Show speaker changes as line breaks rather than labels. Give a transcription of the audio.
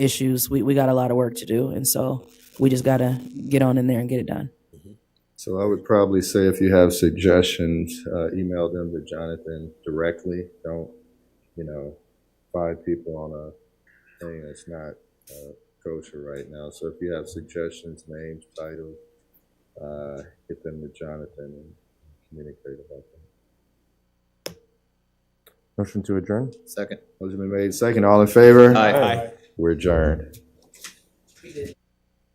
issues, we, we got a lot of work to do. And so we just got to get on in there and get it done.
So I would probably say if you have suggestions, uh, email them to Jonathan directly. Don't, you know, five people on a thing that's not, uh, kosher right now. So if you have suggestions, names, titles, uh, get them to Jonathan and communicate about them.
Motion to adjourn?
Second.
Motion been made second. All in favor?
Aye.
We're adjourned.